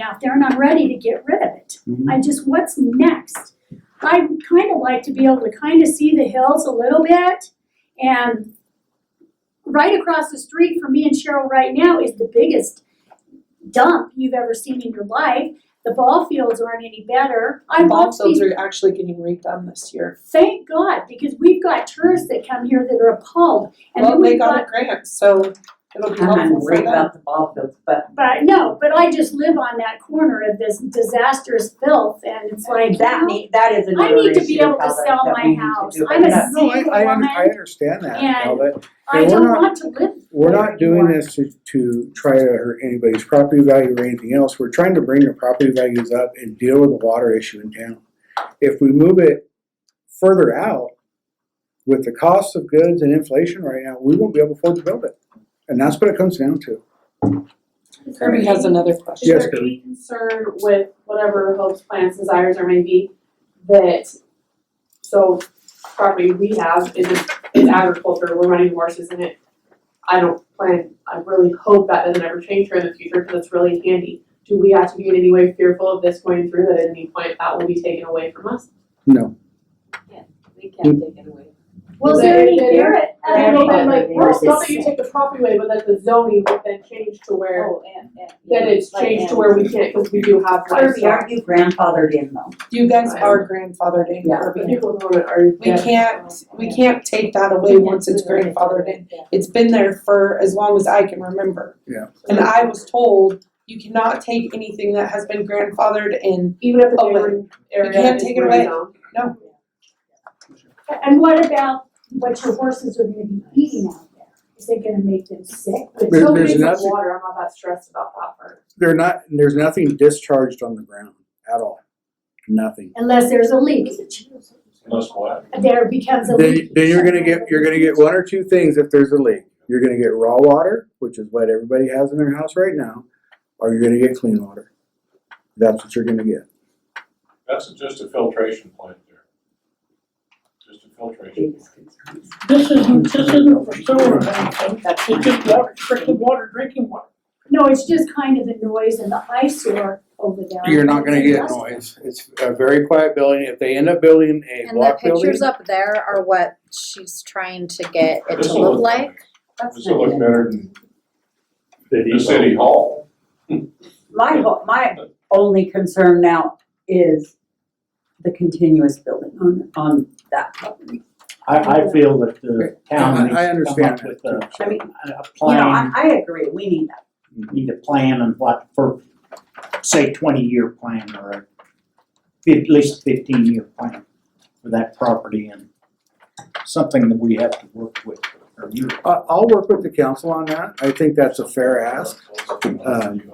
out there and I'm ready to get rid of it. Mhm. I just, what's next? I would kind of like to be able to kind of see the hills a little bit and right across the street from me and Cheryl right now is the biggest dump you've ever seen in your life. The ball fields aren't any better. I Ball love these fields are actually getting redone this year. Thank God, because we've got tourists that come here that are appalled, and Well, then they we've got a got, grant, so it'll be I'm not helpful for worried them. about the ball fields, but but no, but I just live on that corner of this disastrous filth, and it's like, that you know, need, that is I another need to issue, be able to Calvin, sell that we my need to house. do, but I'm a that's- No, I, I, un- Woman. I understand that, And Talbot. I Hey, we're don't not- want to live. We're not doing this to, to try to hurt anybody's property value or anything else. We're trying to bring the property values up and deal with the water issue in town. If we move it further out, with the cost of goods and inflation right now, we won't be able to afford to build it. And that's what it comes down to. Kirby has another Is question. Yes, there Kirby. any concern with whatever hopes, plans, desires there may be that, so property we have is, is agriculture, we're running horses in it. I don't plan, I really hope that doesn't ever change here in the future because it's really handy. Do we have to be in any way fearful of this going through that at any point that will be taken away from us? No. We can't take it away. Was there any They- merit? I I mean, mean, but like, they or have it's not this- that you take the property away, but that the zoning would then change to where, Oh, and, and. that it's like, changed to and- where we can't, because we do have Kirby, livestock. aren't you grandfathered in though? You guys are grandfathered in, Yeah. The Kirby. people who are. We can't, we can't take that away once it's grandfathered in. It's been there for as long as I can remember. Yeah. And Mm-hmm. I was told, you cannot take anything that has been grandfathered in. Even if the Oh, but neighboring area is can't take it away. rezoned. And what about what your horses are gonna be eating out there? Is it gonna make them sick? But it's There- still there's being some nothing- water, I'm not that stressed about that part. They're not, there's nothing discharged on the ground at all. Nothing. Unless there's a leak, Most what? there becomes a Then, leak. then you're gonna get, you're gonna get one or two things if there's a leak. You're gonna get raw water, which is what everybody has in their house right now, or you're gonna get clean water. That's what you're gonna get. That's just a filtration plant there. Just a filtration. Biggest concerns. This isn't, this isn't for sewer or anything, it's just water, drinking water, drinking water. No, it's just kind of the noise and the eyesore over there. You're not gonna get It's noise. It's a very quiet building. If they end up building a And the block building, pictures up there are what she's trying to get it This to will look like. That's This will not look good. better than the city hall. My ho- my only concern now is the continuous building on, on that property. I, I feel that the Yeah, I- town needs I to come understand up with a, I mean, a- a you know, I, plan, I agree, we need that. need a plan and what, for, say, twenty-year plan or a fif- at least fifteen-year plan for that property and something that we have to work with, or you I, I'll work with the council on that. I think that's a fair ask. Um,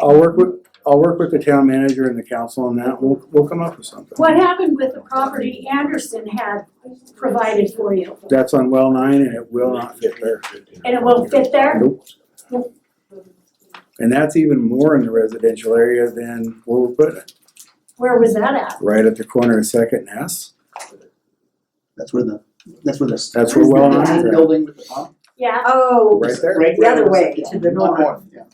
I'll work with, I'll work with the town manager and the council on that. We'll, we'll come up with something. What happened with the property Anderson had provided for you? That's on well nine and it will not fit there. And it won't fit there? Nope. And that's even more in the residential area than where we're putting it, Where was that at? right at the corner of Second and S. That's where the, that's where the. That's where well the nine is at, Building with the, huh? Yeah, Oh, right there. Right the other way, to the north. North, yeah.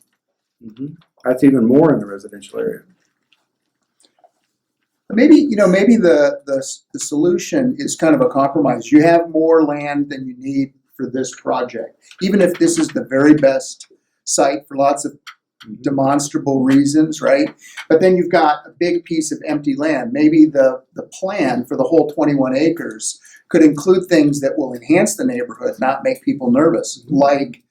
Mhm. That's even more in the residential area. Maybe, you know, maybe the, the, s- the solution is kind of a compromise. You have more land than you need for this project. Even if this is the very best site for lots of Mm-hmm. demonstrable reasons, right? But then you've got a big piece of empty land. Maybe the, the plan for the whole twenty-one acres could include things that will enhance the neighborhood, not make people nervous, Mm-hmm. like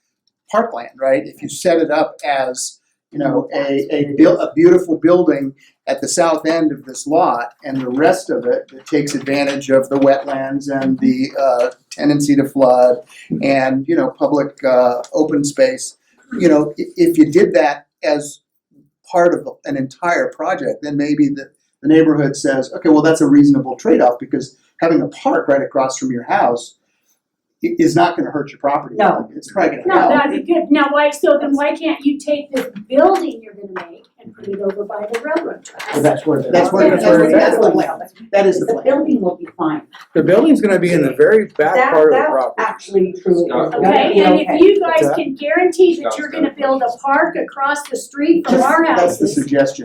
parkland, right? If you set it up as, you know, a, a buil- a beautiful building at the south end of this lot and the rest of it that takes advantage of the wetlands and the uh, tendency to flood and you know public uh, open space you know i- if you did that as part of an entire project then maybe the, the neighborhood says okay well that's a reasonable trade-off because having a park right across from your house i- is not going to hurt your property No. it's probably going to no, help that'd be good. Now, why, so then why can't you take this building you're gonna make and put it over by the railroad tracks? that's where the. That's where- that's where- that's the plan. that is the The plan building will be fine. The building's gonna be in the very back That- part of the that property. Actually, truly. Scott. is gonna Okay, be and if you guys What's that? can guarantee that you're Scott's gonna build a park across the street from Just- our house. That's the suggestion.